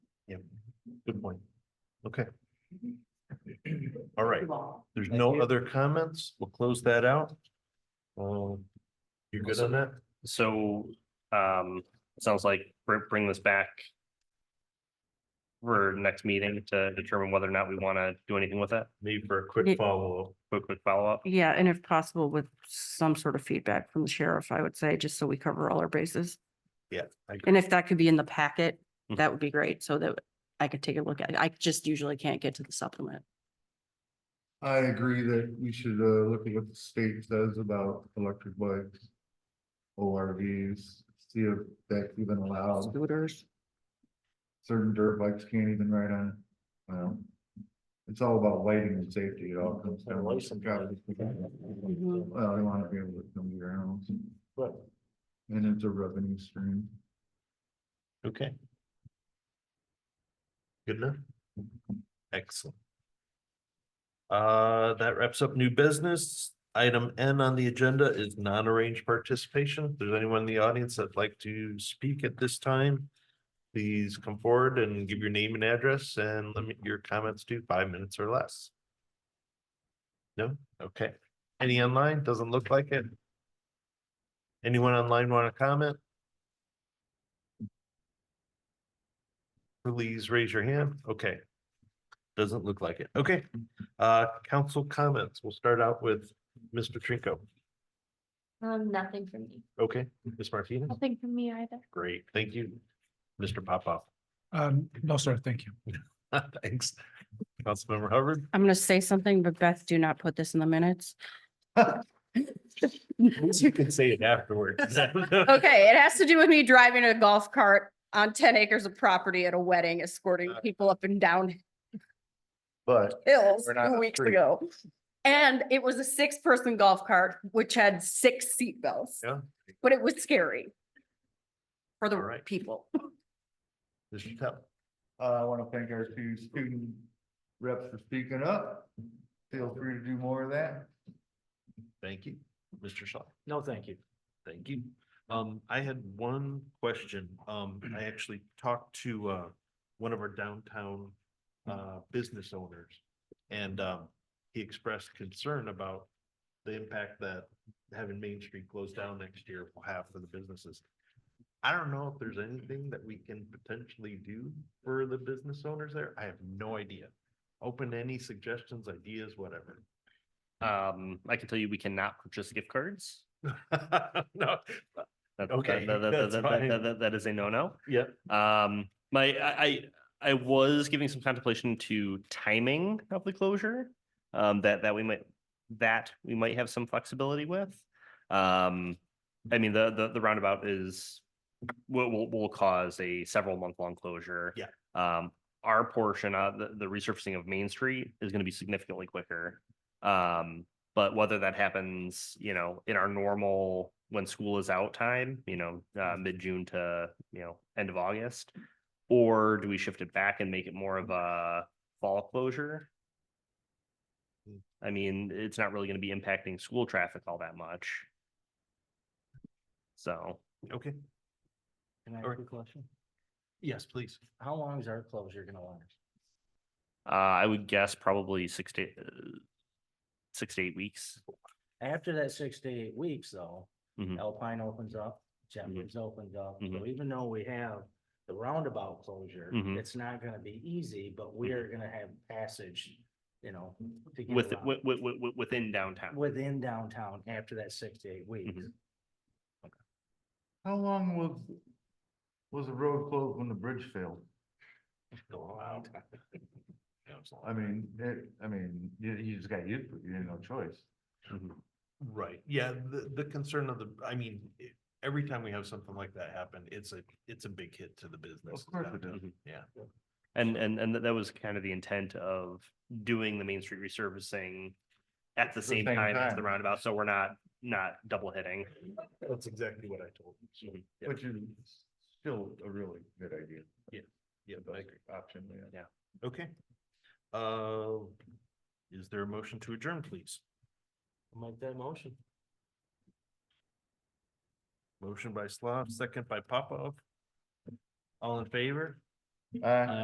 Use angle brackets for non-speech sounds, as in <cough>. Yeah, good point. Okay. Mm-hmm. All right, there's no other comments. We'll close that out. Um, you good on that? So, um, it sounds like br- bring this back for next meeting to determine whether or not we want to do anything with that, Need for a Yeah. quick follow-up. quick, quick follow-up. Yeah, and if possible, with some sort of feedback from the sheriff, I would say, just so we cover all our bases. Yeah, I agree. And if that could be in the packet, Mhm. that would be great, so that I could take a look at it. I just usually can't get to the supplement. I agree that we should uh look at what the state says about electric bikes. ORVs, see if that's even allowed. Scooters. Certain dirt bikes can't even ride on. it. Well, It's all about lighting and safety. It all comes down. And to license traffic. Mhm. Well, they wanna be able to come to your house. Right. And it's a revenue stream. Okay. Good enough? Excellent. Uh, that wraps up new business. Item N on the agenda is non-arranged participation. If there's anyone in the audience that'd like to speak at this time, please come forward and give your name and address and limit your comments to five minutes or less. No? Okay. Any online? Doesn't look like it. Anyone online want to comment? Please raise your hand. Okay. Doesn't look like it. Okay. Uh, council comments. We'll start out with Mr. Trinko. Um, nothing for me. Okay, Ms. Martinez? Nothing for me either. Great, thank you. Mr. Popoff. <laughs> Um, no, sir, thank you. Thanks. Councilmember Hubbard? I'm gonna say something, but Beth, do not put this in the minutes. You can say it afterwards. <laughs> Okay, it has to do with me driving a golf cart on ten acres of property at a wedding, Uh, escorting people up and down But. hills We're not two a weeks street. ago. And it was a six-person golf cart, which had six seat belts, Yeah, but it was scary for All the right. people. Mr. Tell. Uh, I want to thank our two student reps for speaking up. Feel free to do more of that. Thank you. Mr. Shaw? No, thank you. Thank you. Um, I had one question. Um, I actually talked to, uh, one of our downtown, uh, business owners. And, um, he expressed concern about the impact that having Main Street closed down next year will have for the businesses. I don't know if there's anything that we can potentially do for the business owners there. I have no idea. Open to any suggestions, ideas, whatever. <laughs> Um, I can tell you, we cannot purchase gift cards. No, That- that- Okay, that- that- that's that- that- fine. that- that- That is a no-no. yeah, Um, my, I, I, I was giving some contemplation to timing of the closure. Um, that, that we might, that we might have some flexibility with. Um, I mean, the, the, the roundabout is, will, will, will cause a several month long closure. Yeah. Um, our portion of the, the resurfacing of Main Street is gonna be significantly quicker. Um, but whether that happens, you know, in our normal, when school is out time, you know, uh, mid-June to, you know, end of August. Or do we shift it back and make it more of a fall closure? Hmm. I mean, it's not really gonna be impacting school traffic all that much. So, okay. Can I Or- ask a question? Yes, please. How long is our closure gonna last? uh, I would guess probably six to, uh, six to eight weeks. After that six to eight weeks, though, Mhm. Alpine opens up, Mm-hmm. Jeffers opens up, so Mhm. even though we have the roundabout closure, Mhm. it's not gonna be easy, but we are gonna have passage, you know. to get With, around with, within downtown. Within downtown after that six to eight weeks. Mm-hmm. How long was, was the road closed when the bridge failed? Go out. I mean, it, I mean, you, you just got used to it, you had no choice. Right, yeah, the, the concern of the, I mean, i- every time we have something like that happen, it's a, it's a big hit to the business. course it downtown. is. Yeah, And, and, and that- that was kind of the intent of doing the Main Street resurfacing at the same same time as the time. roundabout, so we're not, not double hitting. that's exactly what I told you. so, Mm-hmm. yeah, Which is still a really good idea. Yeah, I agree. Option, yeah. Okay. Uh, is there a motion to adjourn, please? Make that motion. Motion by Slav, second by Popov. All in favor? Uh,